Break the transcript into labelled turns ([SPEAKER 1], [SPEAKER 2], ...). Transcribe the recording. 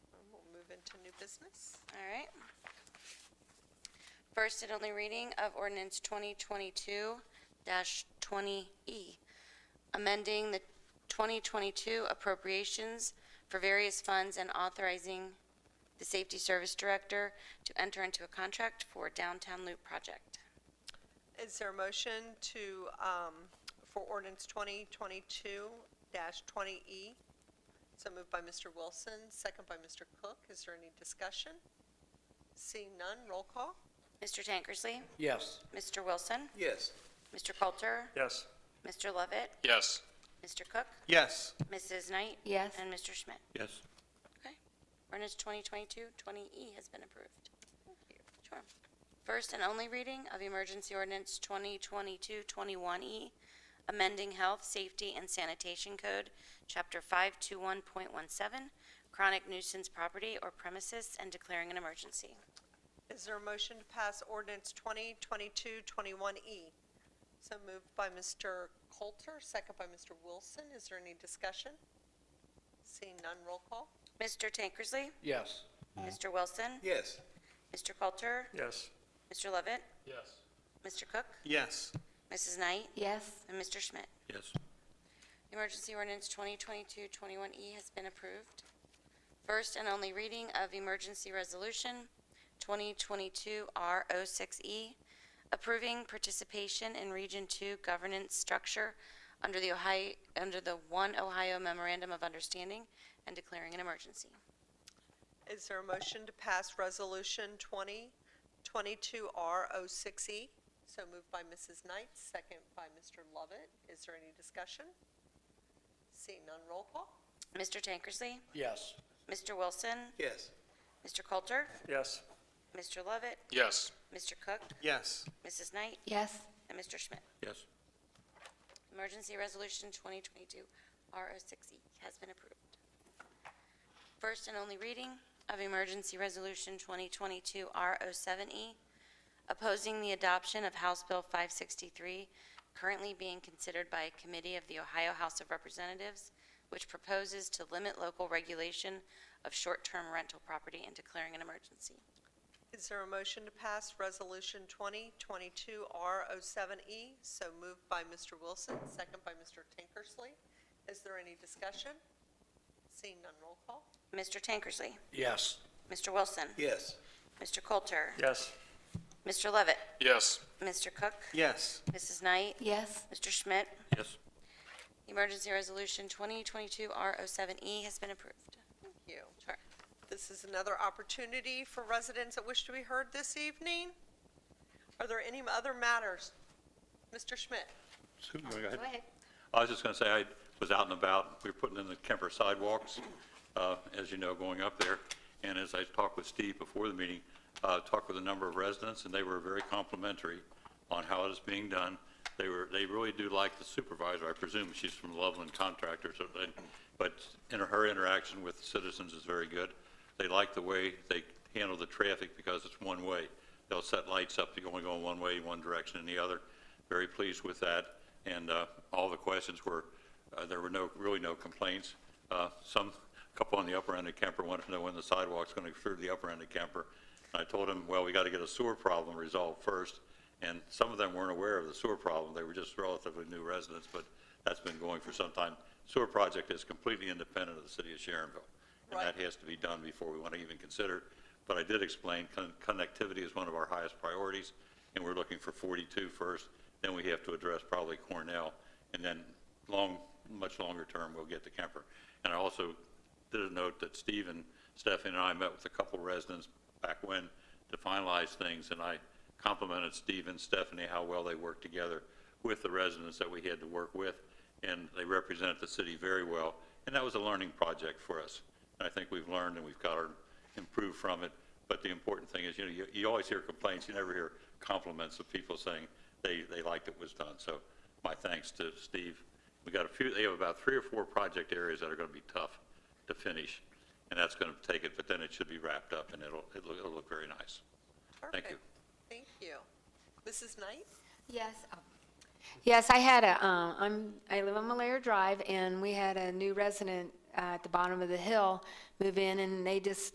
[SPEAKER 1] to new business.
[SPEAKER 2] All right. First and only reading of ordinance 2022-20E, E, amending the 2022 appropriations for various funds and authorizing the Safety Service Director to enter into a contract for Downtown Loop Project.
[SPEAKER 1] Is there a motion to, um, for ordinance 2022-20E? E? So moved by Mr. Wilson, second by Mr. Cook. Is there any discussion? Seeing none, roll call.
[SPEAKER 2] Mr. Tankersley,
[SPEAKER 3] Yes.
[SPEAKER 2] Mr. Wilson,
[SPEAKER 3] Yes.
[SPEAKER 2] Mr. Coulter,
[SPEAKER 3] Yes.
[SPEAKER 2] Mr. Lovett,
[SPEAKER 4] Yes.
[SPEAKER 2] Mr. Cook,
[SPEAKER 3] Yes.
[SPEAKER 2] Mrs. Knight,
[SPEAKER 5] Yes.
[SPEAKER 2] and Mr. Schmidt.
[SPEAKER 3] Yes.
[SPEAKER 2] Okay. Ordinance 2022-20E E has been approved. Sure. First and only reading of emergency ordinance 2022-21E, E, amending health, safety, and sanitation code, chapter 521.17, chronic nuisance property or premises, and declaring an emergency.
[SPEAKER 1] Is there a motion to pass ordinance 2022-21E? E? So moved by Mr. Coulter, second by Mr. Wilson. Is there any discussion? Seeing none, roll call.
[SPEAKER 2] Mr. Tankersley,
[SPEAKER 3] Yes.
[SPEAKER 2] Mr. Wilson,
[SPEAKER 3] Yes.
[SPEAKER 2] Mr. Coulter,
[SPEAKER 3] Yes.
[SPEAKER 2] Mr. Lovett,
[SPEAKER 4] Yes.
[SPEAKER 2] Mr. Cook,
[SPEAKER 3] Yes.
[SPEAKER 2] Mrs. Knight,
[SPEAKER 5] Yes.
[SPEAKER 2] and Mr. Schmidt.
[SPEAKER 3] Yes.
[SPEAKER 2] Emergency ordinance 2022-21E E has been approved. First and only reading of emergency resolution 2022-R06E, E, approving participation in Region 2 governance structure under the Ohio, under the One Ohio Memorandum of Understanding and declaring an emergency.
[SPEAKER 1] Is there a motion to pass Resolution 2022R06E? E? So moved by Mrs. Knight, second by Mr. Lovett. Is there any discussion? Seeing none, roll call.
[SPEAKER 2] Mr. Tankersley,
[SPEAKER 3] Yes.
[SPEAKER 2] Mr. Wilson,
[SPEAKER 3] Yes.
[SPEAKER 2] Mr. Coulter,
[SPEAKER 3] Yes.
[SPEAKER 2] Mr. Lovett,
[SPEAKER 4] Yes.
[SPEAKER 2] Mr. Cook,
[SPEAKER 3] Yes.
[SPEAKER 2] Mrs. Knight,
[SPEAKER 5] Yes.
[SPEAKER 2] and Mr. Schmidt.
[SPEAKER 3] Yes.
[SPEAKER 2] Emergency Resolution 2022 R06E E, has been approved. First and only reading of Emergency Resolution 2022 R07E, E, opposing the adoption of House Bill 563, currently being considered by a committee of the Ohio House of Representatives, which proposes to limit local regulation of short-term rental property and declaring an emergency.
[SPEAKER 1] Is there a motion to pass Resolution 2022R07E? E? So moved by Mr. Wilson, second by Mr. Tinkersley. Is there any discussion? Seeing none, roll call.
[SPEAKER 2] Mr. Tankersley,
[SPEAKER 3] Yes.
[SPEAKER 2] Mr. Wilson,
[SPEAKER 3] Yes.
[SPEAKER 2] Mr. Coulter,
[SPEAKER 3] Yes.
[SPEAKER 2] Mr. Levitt,
[SPEAKER 4] Yes.
[SPEAKER 2] Mr. Cook,
[SPEAKER 3] Yes.
[SPEAKER 2] Mrs. Knight,
[SPEAKER 5] Yes.
[SPEAKER 2] Mr. Schmidt,
[SPEAKER 3] Yes.
[SPEAKER 2] Emergency Resolution 2022-R07E E has been approved.
[SPEAKER 1] Thank you.
[SPEAKER 2] Sure.
[SPEAKER 1] This is another opportunity for residents that wish to be heard this evening. Are there any other matters? Mr. Schmidt?
[SPEAKER 6] Sue, you wanna go ahead? I was just going to say, I was out and about, we were putting in the Kemper sidewalks, uh, as you know, going up there, and as I talked with Steve before the meeting, uh, talked with a number of residents, and they were very complimentary on how it is being done. They were, they really do like the supervisor, I presume she's from Loveland Contractors, or they- but in her interaction with citizens is very good. They like the way they handle the traffic because it's one way. They'll set lights up, you only go in one way, one direction and the other. Very pleased with that. And uh, all the questions were, uh, there were no, really no complaints. Uh, Some, a couple on the upper end of Kemper wanted to know when the sidewalk's going to through the upper end of Kemper. And I told them, well, we got to get a sewer problem resolved first. And some of them weren't aware of the sewer problem. They were just relatively new residents, but that's been going for some time. Sewer project is completely independent of the city of Sharonville. And
[SPEAKER 1] Right.
[SPEAKER 6] that has to be done before we want to even consider. But I did explain con- connectivity is one of our highest priorities, and we're looking for 42 first, then we have to address probably Cornell, and then long, much longer term, we'll get to Kemper. And I also did a note that Steve and Stephanie and I met with a couple residents back when to finalize things, and I complimented Steve and Stephanie how well they worked together with the residents that we had to work with, and they represented the city very well, and that was a learning project for us. And I think we've learned and we've got to improve from it, but the important thing is, you know, you, you always hear complaints, you never hear compliments of people saying they, they liked it was done. So my thanks to Steve. We got a few, they have about three or four project areas that are going to be tough to finish, and that's going to take it, but then it should be wrapped up and it'll, it'll, it'll look very nice. Thank you.
[SPEAKER 1] Perfect. Thank you. Mrs. Knight?
[SPEAKER 5] Yes. oh. Yes, I had a, um, I'm, I live on Malaria Drive, and we had a new resident uh, at the bottom of the hill move in, and they just